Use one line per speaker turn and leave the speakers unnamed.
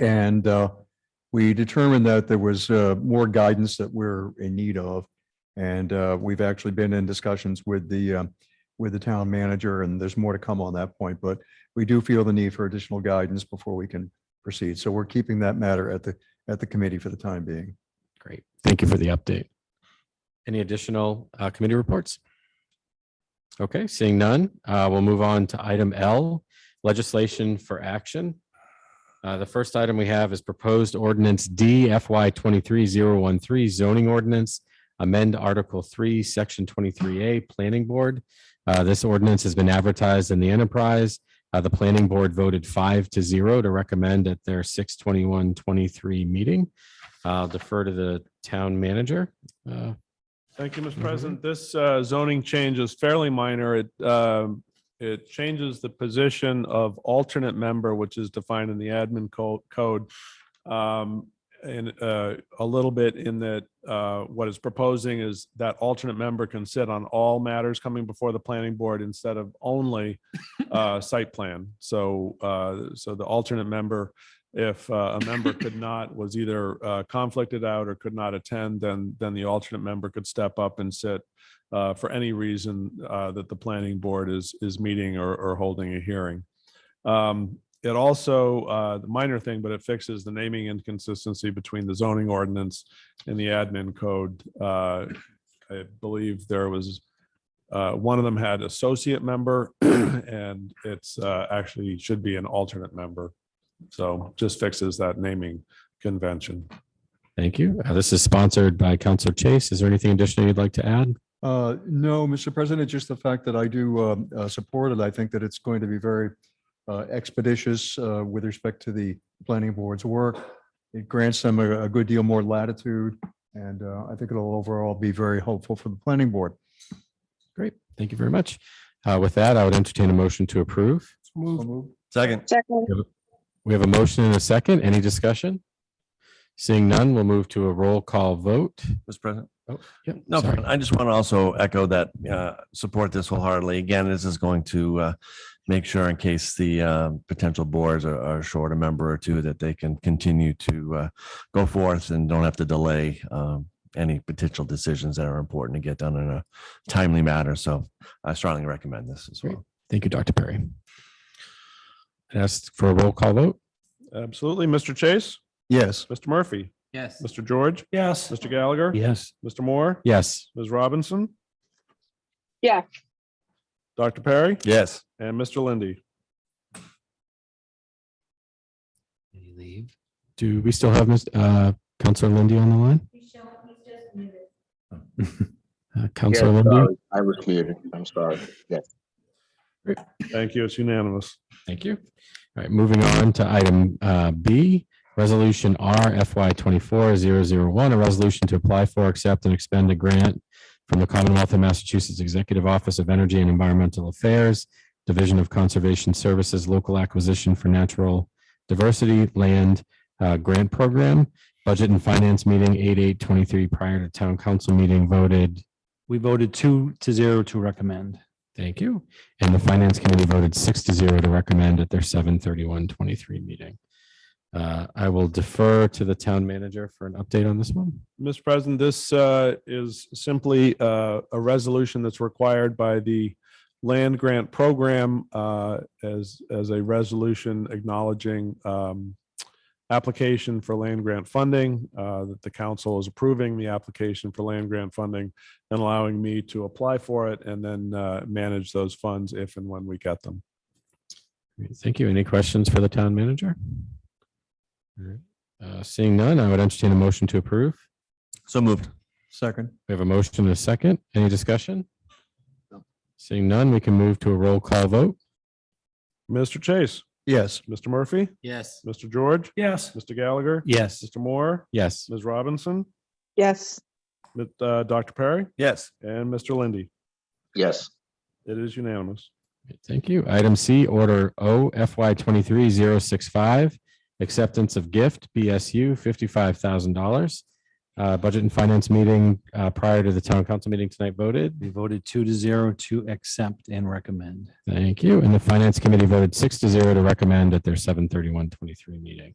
And uh, we determined that there was uh, more guidance that we're in need of. And uh, we've actually been in discussions with the, um, with the town manager, and there's more to come on that point. But we do feel the need for additional guidance before we can proceed. So we're keeping that matter at the, at the committee for the time being.
Great. Thank you for the update. Any additional uh, committee reports? Okay, seeing none, uh, we'll move on to item L, legislation for action. Uh, The first item we have is proposed ordinance D FY 23013 zoning ordinance, amend Article 3, Section 23A, Planning Board. Uh, This ordinance has been advertised in the enterprise. Uh, The planning board voted five to zero to recommend at their 6/21/23 meeting. I'll defer to the town manager. Uh,
Thank you, Mr.
Mhm.
President. This uh, zoning change is fairly minor. It, um, it changes the position of alternate member, which is defined in the admin co- code. um, And uh, a little bit in that uh, what is proposing is that alternate member can sit on all matters coming before the planning board instead of only uh, site plan. So, uh, so the alternate member, if uh, a member could not, was either uh, conflicted out or could not attend, then, then the alternate member could step up and sit uh, for any reason uh, that the planning board is, is meeting or, or holding a hearing. Um, It also, uh, the minor thing, but it fixes the naming inconsistency between the zoning ordinance and the admin code. Uh, I believe there was, uh, one of them had associate member and it's uh, actually should be an alternate member. So just fixes that naming convention.
Thank you. Uh, This is sponsored by Counselor Chase. Is there anything additional you'd like to add?
Uh, No, Mr. President, just the fact that I do um, uh, support it, I think that it's going to be very uh, expeditious uh, with respect to the planning board's work. It grants them a a good deal more latitude, and uh, I think it'll overall be very helpful for the planning board.
Great. Thank you very much. Uh, With that, I would entertain a motion to approve.
Second.
Second,
We have a motion and a second. Any discussion? Seeing none, we'll move to a roll call vote.
Mr. President.
Yep,
No,
sorry.
I just want to also echo that, uh, support this wholeheartedly. Again, this is going to, uh, make sure in case the, um, potential boards are, are short a member or two, that they can continue to, uh, go forth and don't have to delay, um, any potential decisions that are important to get done in a timely manner. So I strongly recommend this as well.
Thank you, Dr. Perry. Asked for a roll call vote.
Absolutely. Mr. Chase,
Yes.
Mr. Murphy,
Yes.
Mr. George. Yes. Mr. Gallagher.
Yes.
Mr. Moore.
Yes.
Ms. Robinson.
yes,
Dr. Perry
Yes.
and Mr. Lindy.
Did he leave?
Do we still have Ms. uh, Counselor Lindy on the line? Uh, Counselor
Yes,
Lindy?
sorry. I was muted. I'm sorry.
Thank you. It's unanimous.
Thank you. All right, moving on to item uh, B, Resolution R FY twenty-four zero zero one, a resolution to apply for, accept, and expend a grant from the Commonwealth of Massachusetts Executive Office of Energy and Environmental Affairs, Division of Conservation Services, Local Acquisition for Natural Diversity Land uh, Grant Program. Budget and Finance Meeting eight eight twenty-three prior to Town Council meeting voted,
We voted two to zero to recommend.
thank you. And the Finance Committee voted six to zero to recommend at their seven thirty-one twenty-three meeting. Uh, I will defer to the town manager for an update on this one.
Mr. President, this uh, is simply uh, a resolution that's required by the land grant program uh, as, as a resolution acknowledging um, application for land grant funding, uh, that the council is approving the application for land grant funding and allowing me to apply for it and then uh, manage those funds if and when we get them.
Great, Thank you. Any questions for the town manager? All right, uh, Seeing none, I would entertain a motion to approve.
So moved.
Second.
We have a motion and a second. Any discussion? Seeing none, we can move to a roll call vote.
Mr. Chase,
Yes.
Mr. Murphy,
Yes.
Mr. George,
Yes.
Mr. Gallagher,
Yes.
Mr. Moore,
Yes.
Ms. Robinson,
yes,
Ms. uh, Dr. Perry,
Yes.
and Mr. Lindy.
Yes,
It is unanimous.
Thank you. Item C, Order O FY twenty-three zero six five, acceptance of gift, BSU, fifty-five thousand dollars. Uh, Budget and Finance meeting uh, prior to the Town Council meeting tonight voted.
We voted two to zero to accept and recommend.
Thank you. And the Finance Committee voted six to zero to recommend at their seven thirty-one twenty-three meeting.